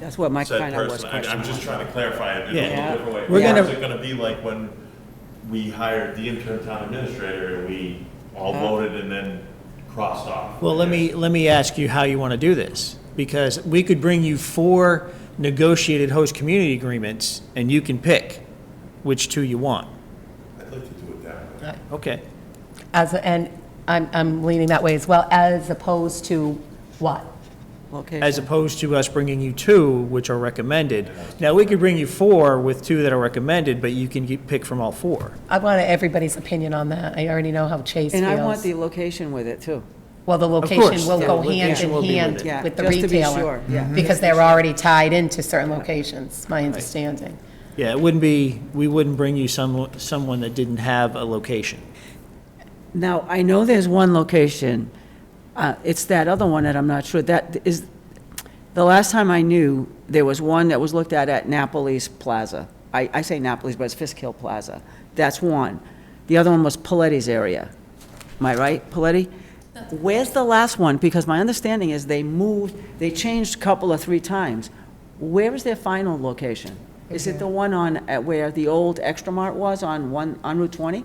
That's what my said kind of was person, I'm, question I'm just was. trying to clarify it in a Yeah. little different way. We're Or gonna- Is it gonna be like when we hired the interim town administrator and we all Yeah. voted and then crossed off? Well, let me, let me ask you how you want to do this, because we could bring you four negotiated host community agreements, and you can pick which two you want. I'd like to do it that way. Okay. As, and I'm, I'm leaning that way as well, as opposed to what? Location. As opposed to us bringing you two, which are recommended. Now, we could bring you four with two that are recommended, but you can get- pick from all four. I want everybody's opinion on that. I already know how Chase And I want feels. the location with it, too. Well, the course, location will the go hand location will in be with hand it. Mm-hmm. Yeah, with the just to be retailer. sure, yeah. Mhm. Because they're already tied into certain locations, my understanding. Yeah, it wouldn't be, we wouldn't bring you some, someone that didn't have a location. Now, I know there's one location, uh, it's that other one that I'm not sure, that is, the last time I knew, there was one that was looked at at Napoli's Plaza. I, I say Napoli's, but it's Fisk Hill Plaza. That's one. The other one was Paletti's area. Am I right, Paletti? Where's the last one? Because my understanding is they moved, they changed a couple or three times. Where is their final location? Is it the one on, at where the old Extra Mart was on one, on Route 20?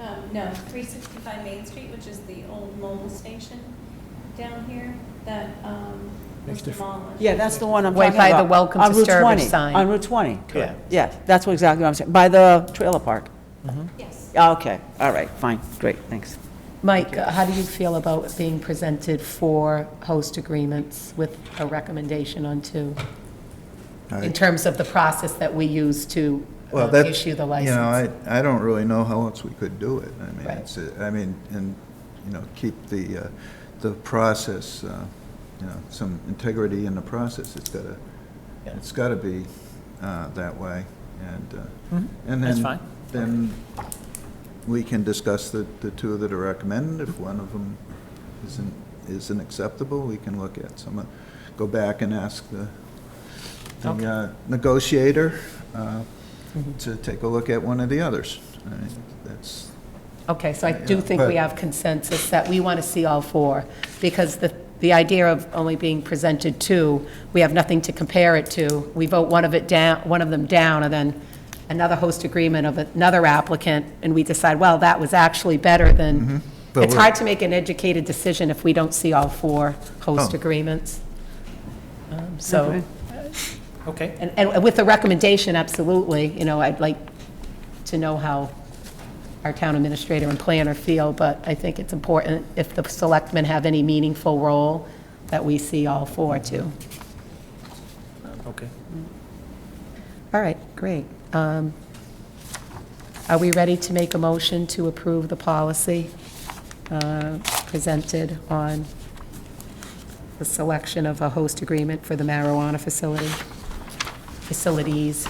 Um, no, three sixty-five Main Street, which is the old mobile station down here that, um, was demolished. Yeah, that's the one I'm Way talking about. by the welcome On to Route Sturbridge 20, sign. On Route 20. Correct. Yeah, that's what exactly what I'm saying, by the trailer park. Yes. Ah, Okay, all right, fine, great, thanks. Mike, uh, how do you feel about being presented for host agreements with a recommendation on two? In terms of the process that we use to Well, um, that's, issue the You license? know, I, I don't really know how else we could do it. I mean, Right. it's, uh, I mean, and, you know, keep the, uh, the process, uh, you know, some integrity in the process. It's gotta, Yeah. it's gotta be, uh, that way. And, uh, Mhm. Mm-hmm. and That's then, fine. then we can discuss the, the two that are recommended. If one of them isn't, isn't acceptable, we can look at some, of- go back and ask the, the Okay. Mm-hmm. uh, negotiator uh, to take a look at one of the others. I mean, That's, Okay, so I do Yeah, think we but- have consensus that we want to see all four, because the, the idea of only being presented two, we have nothing to compare it to. We vote one of it down, one of them down, and then another host agreement of another applicant, and we decide, well, that was actually better than, Mm-hmm. But it's we're- hard to make an educated decision if we don't see all four host Oh. agreements. Um, So, Okay. and, and with the recommendation, absolutely, you know, I'd like to know how our town administrator and planner feel, but I think it's important, if the selectmen have any meaningful role, that we see all four too. Okay. All right, great. Um, Are we ready to make a motion to approve the policy uh, presented on the selection of a host agreement for the marijuana facility, facilities?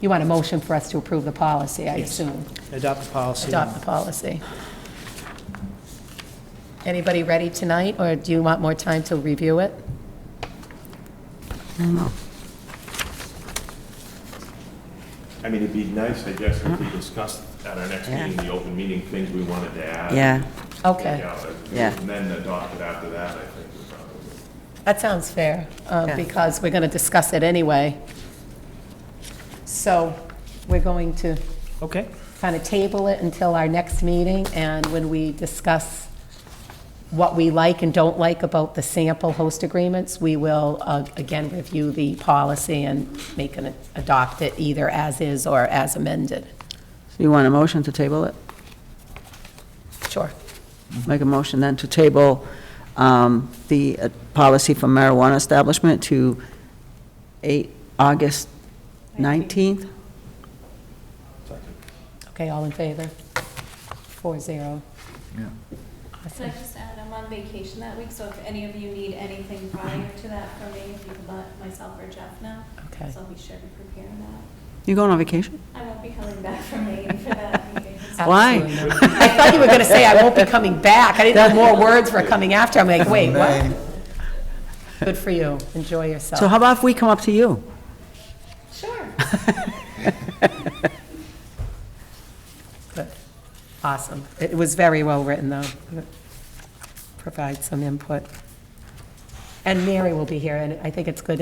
You want a motion for us to approve the policy, I assume? Adopt the policy. Adopt the policy. Anybody ready tonight, or do you want more time to review it? I mean, it'd be nice, I guess, if we discussed at our next Uh-huh. Yeah. meeting, the open meeting, things we wanted to add. Yeah, Okay. Yeah, but- Yeah. And then adopt it after that, I think, would probably. That sounds fair, uh, Yeah. because we're going to discuss it anyway. So we're going to Okay. kind of table it until our next meeting, and when we discuss what we like and don't like about the sample host agreements, we will uh, again review the policy and make an, adopt it either as is or as amended. so you want a motion to table it? Sure. Make a motion then to table um, the uh, policy for marijuana establishment to 8, August 19th? Okay, all in favor? Four zero. yeah. Can I just add, I'm on vacation that week, so if any of you need anything prior to that from me, you can let myself or Jeff know. Okay. So be sure to prepare that. You going on vacation? I won't be coming back from Maine for that meeting. so- Why? Absolutely not. I thought you were going to say, I won't be coming back. I didn't know more words were coming after. I'm like, wait, what? May, Good for you. Enjoy So yourself. how about if we come up to you? Sure. Good. Awesome. It was very well written, though. Provide some input. And Mary will be here, and I think it's good